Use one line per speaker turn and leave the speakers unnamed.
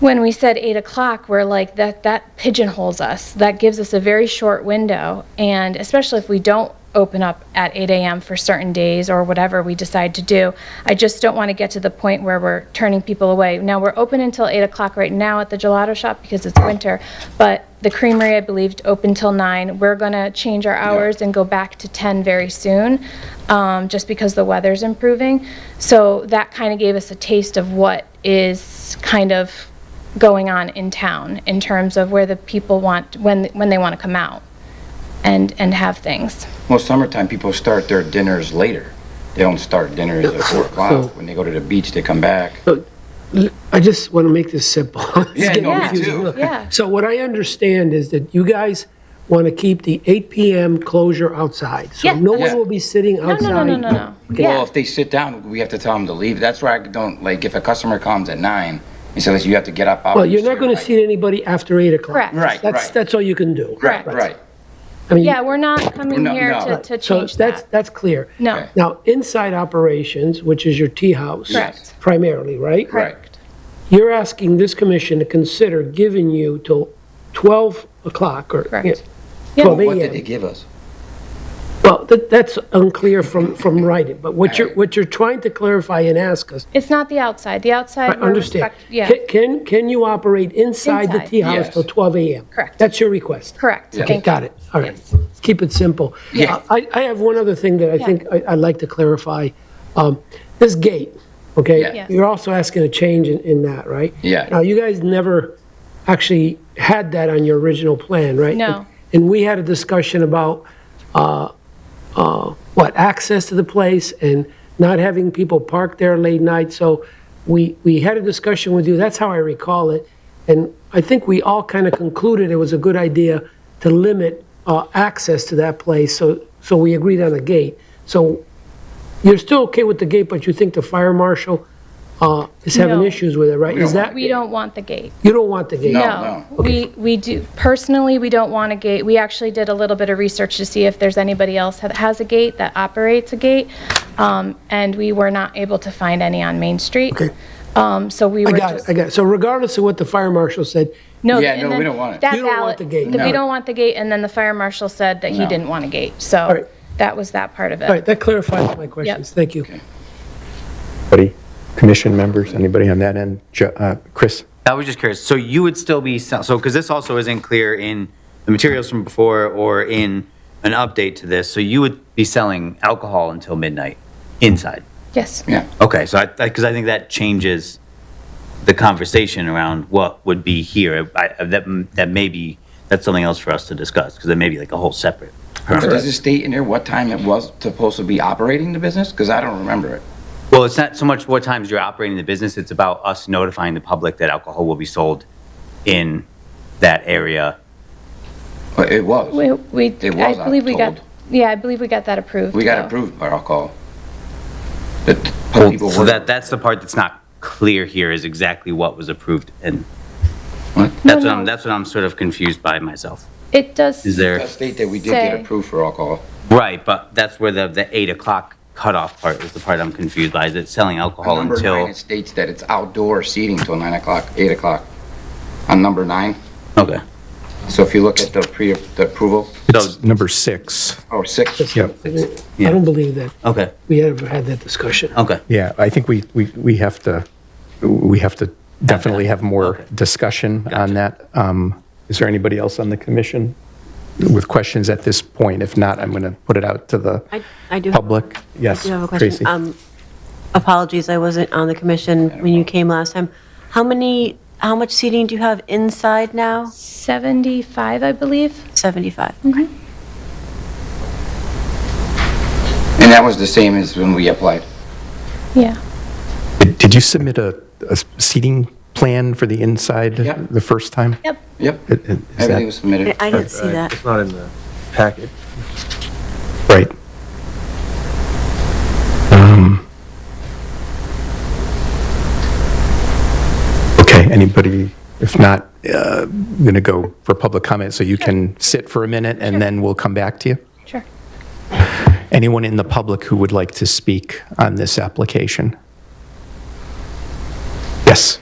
when we said eight o'clock, we're like, that, that pigeonholes us. That gives us a very short window. And especially if we don't open up at 8 a.m. for certain days or whatever we decide to do, I just don't want to get to the point where we're turning people away. Now, we're open until 8 o'clock right now at the gelato shop because it's winter, but the creamery, I believe, open till 9. We're going to change our hours and go back to 10 very soon, um, just because the weather's improving. So that kind of gave us a taste of what is kind of going on in town in terms of where the people want, when, when they want to come out and, and have things.
Well, summertime, people start their dinners later. They don't start dinners at four o'clock. When they go to the beach, they come back.
I just want to make this simple. It's
Yeah,
getting
no, me
confusing.
too.
Look,
Yeah.
So what I understand is that you guys want to keep the 8 PM closure outside. So
Yeah,
no
that's-
one will be sitting
No,
outside.
no, no, no, no, no.
Well,
Yeah,
if they sit down, we have to tell them to leave. That's why I don't, like, if a customer comes at nine, and says, you have to get up. out
Well,
of
you're
your
not going to
seat."
see anybody after 8 o'clock.
Correct.
Right,
That's,
right,
that's all you can do.
right,
correct.
right.
I mean,
yeah, we're not coming
No,
here
no.
to, to
So
change
that's,
that.
that's clear.
No,
Now, inside operations, which is your tea house.
Correct.
Primarily, right?
correct.
You're asking this commission to consider giving you till 12 o'clock or.
Correct.
yeah,
Yeah.
12
What
a.m.
did they give us?
Well, that, that's unclear from, from writing, but what you're,
Alright.
what you're trying to clarify and ask us,
It's not the outside. The
I
outside, we're
understand.
respect, yeah,
Can- Can, can you operate inside the
Inside.
tea house
Yes.
till 12 AM?
Correct.
That's your request?
correct.
Yeah.
Okay,
Thank you.
got it. All right. Let's keep it simple.
Yeah.
Uh, I, I have one other thing that I think I- I'd like to clarify. Um, This gate, okay?
Yeah. Yeah.
You're also asking a change in, in that, right?
Yeah.
Now, you guys never actually had that on your original plan, right?
No.
And we had a discussion about, uh, uh, what, access to the place and not having people park there late night. So we, we had a discussion with you, that's how I recall it. And I think we all kind of concluded it was a good idea to limit uh, access to that place, so, so we agreed on a gate. So you're still okay with the gate, but you think the fire marshal uh, is having
No.
issues with it, right?
We
Is
don't
that,
We don't want the gate.
you don't want the gate?
Oh, No.
No, we, we do, personally, we don't want a gate. We actually did a little bit of research to see if there's anybody else that has a gate, that operates a gate. Um, and we were not able to find any on Main Street.
Okay.
Um, so we
I
were
got it,
just.
I got it. So regardless of what the fire marshal said,
No,
Yeah,
and
no, we
then
don't want it.
That
You don't want
ballot-
the gate.
that We
No.
don't want the gate, and then the fire marshal said that he
No.
didn't want a gate,
All
so
right.
that was that part of
all
it.
right, that clarifies my questions, thank you.
Anybody, commission members, anybody on that end? Jo- uh, Chris?
I was just curious, so you would still be, sell- so, because this also isn't clear in the materials from before or in an update to this, so you would be selling alcohol until midnight inside?
Yes,
Yeah.
Okay, so I, because I think that changes the conversation around what would be here. I, I- that, that may be, that's something else for us to discuss, because it may be like a whole separate.
But does it state in there what time it was supposed to be operating the business? Because I don't remember it.
Well, it's not so much what times you're operating the business, it's about us notifying the public that alcohol will be sold in that area.
But it was.
we, we,
It
I
was, I'm
believe we got,
told.
yeah, I believe we got that approved.
We got
though.
approved by alcohol. The t- people
So
were-
that, that's the part that's not clear here is exactly what was approved and
What?
that's what
no.
I'm, that's what I'm sort of confused by myself.
It does.
Is
It
there,
does state that we did get
Say.
approved for alcohol.
right, but that's where the, the eight o'clock cutoff part is the part I'm confused by. Is it selling alcohol
number nine,
until?
it states that it's outdoor seating till nine o'clock, eight o'clock. On number nine,
Okay.
so if you look at the pre, the approval,
So,
It's number six.
or six,
Yep.
I don't believe that
okay,
we ever had that discussion.
okay.
Yeah, I think we, we, we have to, we have to definitely have more discussion on that. Um, Is there anybody else on the commission with questions at this point? If not, I'm going to put it out to
I-
the
I do have-
public. Yes,
I do have a
Tracy.
question. Um, Apologies, I wasn't on the commission when you came last time. How many, how much seating do you have inside now?
75, I believe.
75.
and that was the same as when we applied.
Yeah,
Did did you submit a, a seating plan for the inside
Yeah.
the first time?
yep.
Yep,
It- it- Is
everything
that
was submitted.
I didn't see that.
It's not in the packet.
right? Um, Okay, anybody, if not, uh, I'm going to go for public comment, so you can sit for a minute, and then we'll come back to you.
Sure.
Anyone in the public who would like to speak on this application? Yes?